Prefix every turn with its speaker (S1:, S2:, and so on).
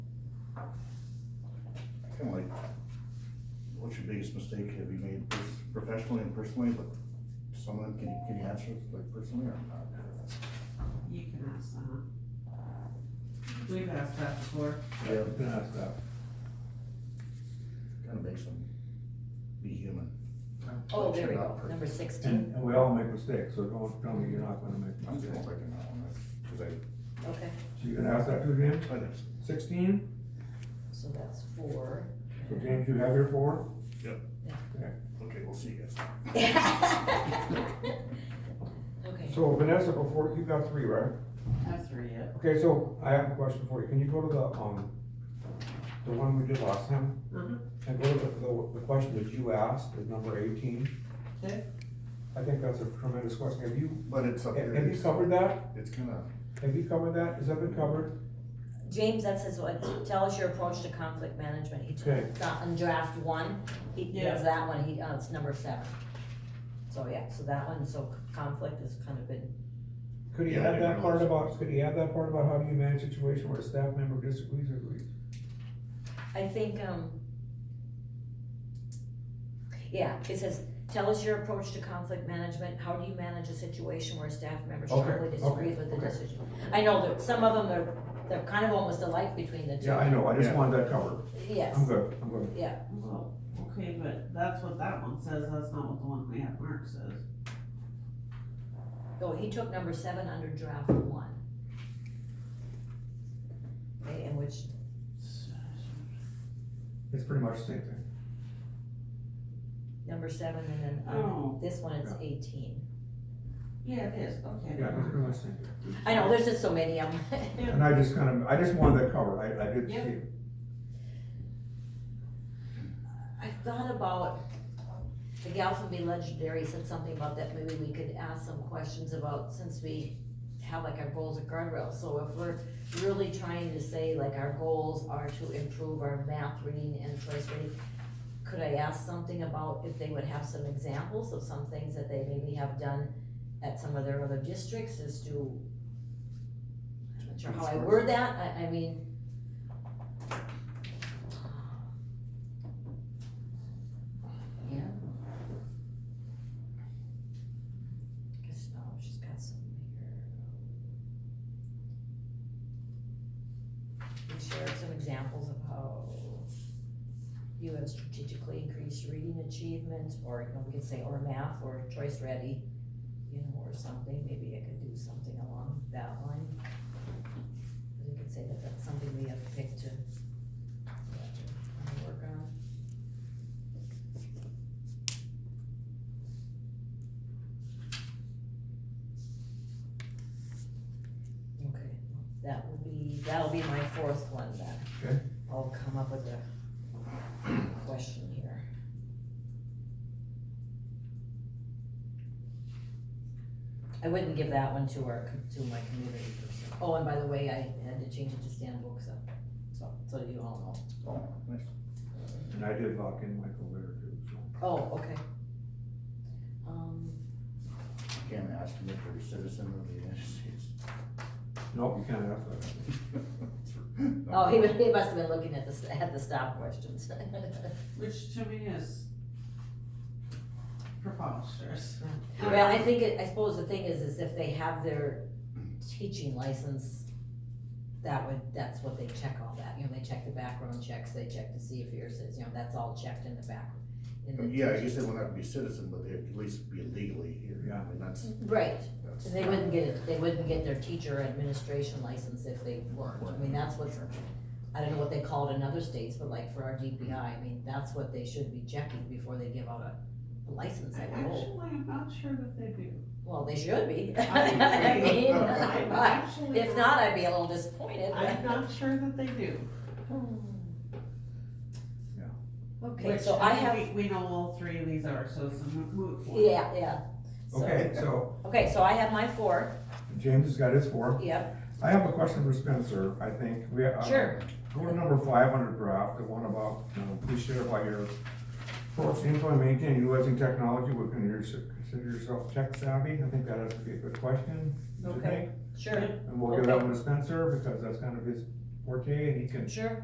S1: Kinda like, what's your biggest mistake have you made pers- professionally and personally, but some of them, can you, can you answer like personally or not?
S2: You can ask that. We've asked that before.
S1: Yeah,
S3: I've been asked that.
S1: kinda makes them be human.
S4: Oh, there we
S1: Not
S4: go,
S1: perfect.
S4: number sixteen,
S3: And, and we all make mistakes, so don't tell me you're not gonna make
S1: I'm just
S3: mistakes.
S1: picking that one, that's- cause I,
S4: okay,
S3: So you can ask that to James,
S1: I think so.
S3: sixteen,
S4: so that's four.
S3: so James, you have your four?
S1: okay, we'll see you guys.
S4: Okay,
S3: So Vanessa, before, you got three, right?
S2: That's three yet.
S3: Okay, so I have a question for you, can you go to the, um, the one we did last time?
S2: Uh-huh.
S3: And go to the, the, the question that you asked, is number eighteen?
S2: Okay.
S3: I think that's a tremendous question, have you,
S1: But it's up there,
S3: have you
S1: it's,
S3: covered that?
S1: it's kinda,
S3: Have you covered that, has that been covered?
S4: James, that says, what- tell us your approach to conflict management, he
S3: Okay.
S4: took, that in draft one, he
S2: Yeah.
S4: does that one, he, uh, it's number seven. So, yeah, so that one, so conflict has kind of been,
S3: Could he
S1: Yeah, I
S3: add
S1: didn't
S3: that part
S1: realize.
S3: about, could he add that part about how do you manage a situation where a staff member disagrees or agrees?
S4: I think, um. Yeah, it says, tell us your approach to conflict management, how do you manage a situation where a staff member
S3: Okay,
S4: strongly
S3: okay,
S4: disagrees with the
S3: okay.
S4: decision? I know that some of them are, they're kind of almost alike between the two.
S3: Yeah, I know, I just
S1: Yeah.
S3: wanted that covered,
S4: Yes,
S3: I'm good, I'm good.
S4: yeah,
S2: Well, okay, but that's what that one says, that's not what the one we have marked says.
S4: oh, he took number seven under draft one. Okay, And which,
S3: It's pretty much the same thing.
S4: number seven, and then, um,
S2: Oh,
S4: this one is
S3: Yeah.
S4: eighteen.
S2: yeah, it is, okay.
S3: Yeah, it's pretty much the same thing.
S4: I know, there's just so many of them.
S3: And I just kind of, I just wanted that covered, I, I did see
S2: Yeah.
S3: it.
S4: I thought about, the gal from Be Legendary said something about that, maybe we could ask some questions about, since we have like our goals and guardrails, so if we're really trying to say like our goals are to improve our math reading and choice reading, could I ask something about if they would have some examples of some things that they maybe have done at some of their other districts as to, I'm not sure how I word that, I, I mean. Yeah. Guess, oh, she's got some here. Can you share some examples of how you have strategically increased reading achievement, or, you know, we could say, or math, or choice ready, you know, or something, maybe I could do something along that line. We could say that that's something we have picked to, to work on. Okay, that will be, that'll be my fourth one then.
S3: Okay.
S4: I'll come up with a question here. I wouldn't give that one to our, com- to my community person. Oh, and by the way, I had to change it to Stan Booksa, so, so you all
S1: oh, nice.
S3: And I did lock in Michael there too, so.
S4: know. Oh, okay. Um,
S1: Can't ask them if they're a citizen of the United States.
S3: Nope, you can't ask that.
S4: oh, he was, he must have been looking at the, s- at the stop questions.
S2: Which to me is preposterous.
S4: Well, I think, it- I suppose the thing is, is if they have their teaching license, that would, that's what they check all that, you know, they check the background checks, they check to see if you're, a citizen, you know, that's all checked in the back. in the
S1: Yeah, I
S4: teaching-
S1: guess they won't have to be citizen, but they at least be legally here, I
S3: Yeah.
S1: mean, that's,
S4: Right,
S1: that's.
S4: and they wouldn't get, it. they wouldn't get their teacher administration license if they weren't, I mean, that's what's, I don't know what they call it in other states, but like for our DPI, I mean, that's what they should be checking before they give out a a license, I would
S2: Actually,
S4: hope.
S2: I'm not sure that they do.
S4: Well, they should be. I
S2: I'm-
S4: mean,
S2: I'm
S4: but-
S2: actually
S4: If not, I'd be a little disappointed.
S2: I'm not sure that they do.
S4: Okay,
S2: Which,
S4: so I
S2: mean,
S4: have,
S2: We, we know all three of these are, so it's a moot moot point.
S4: yeah, yeah. So-
S3: Okay, so
S4: Okay, so I have my four,
S3: James has got his four.
S4: yep,
S3: I have a question for Spencer, I think. We, uh,
S4: Sure.
S3: Go to number five hundred draft, the one about, you know, please share about your approach to implement, maintain, utilizing technology, what can you consider yourself tech savvy? I think that has to be a good question, do you
S4: Okay.
S3: think?
S4: sure,
S3: And we'll give that one to Spencer, because that's kind of his forte, and he can
S4: sure.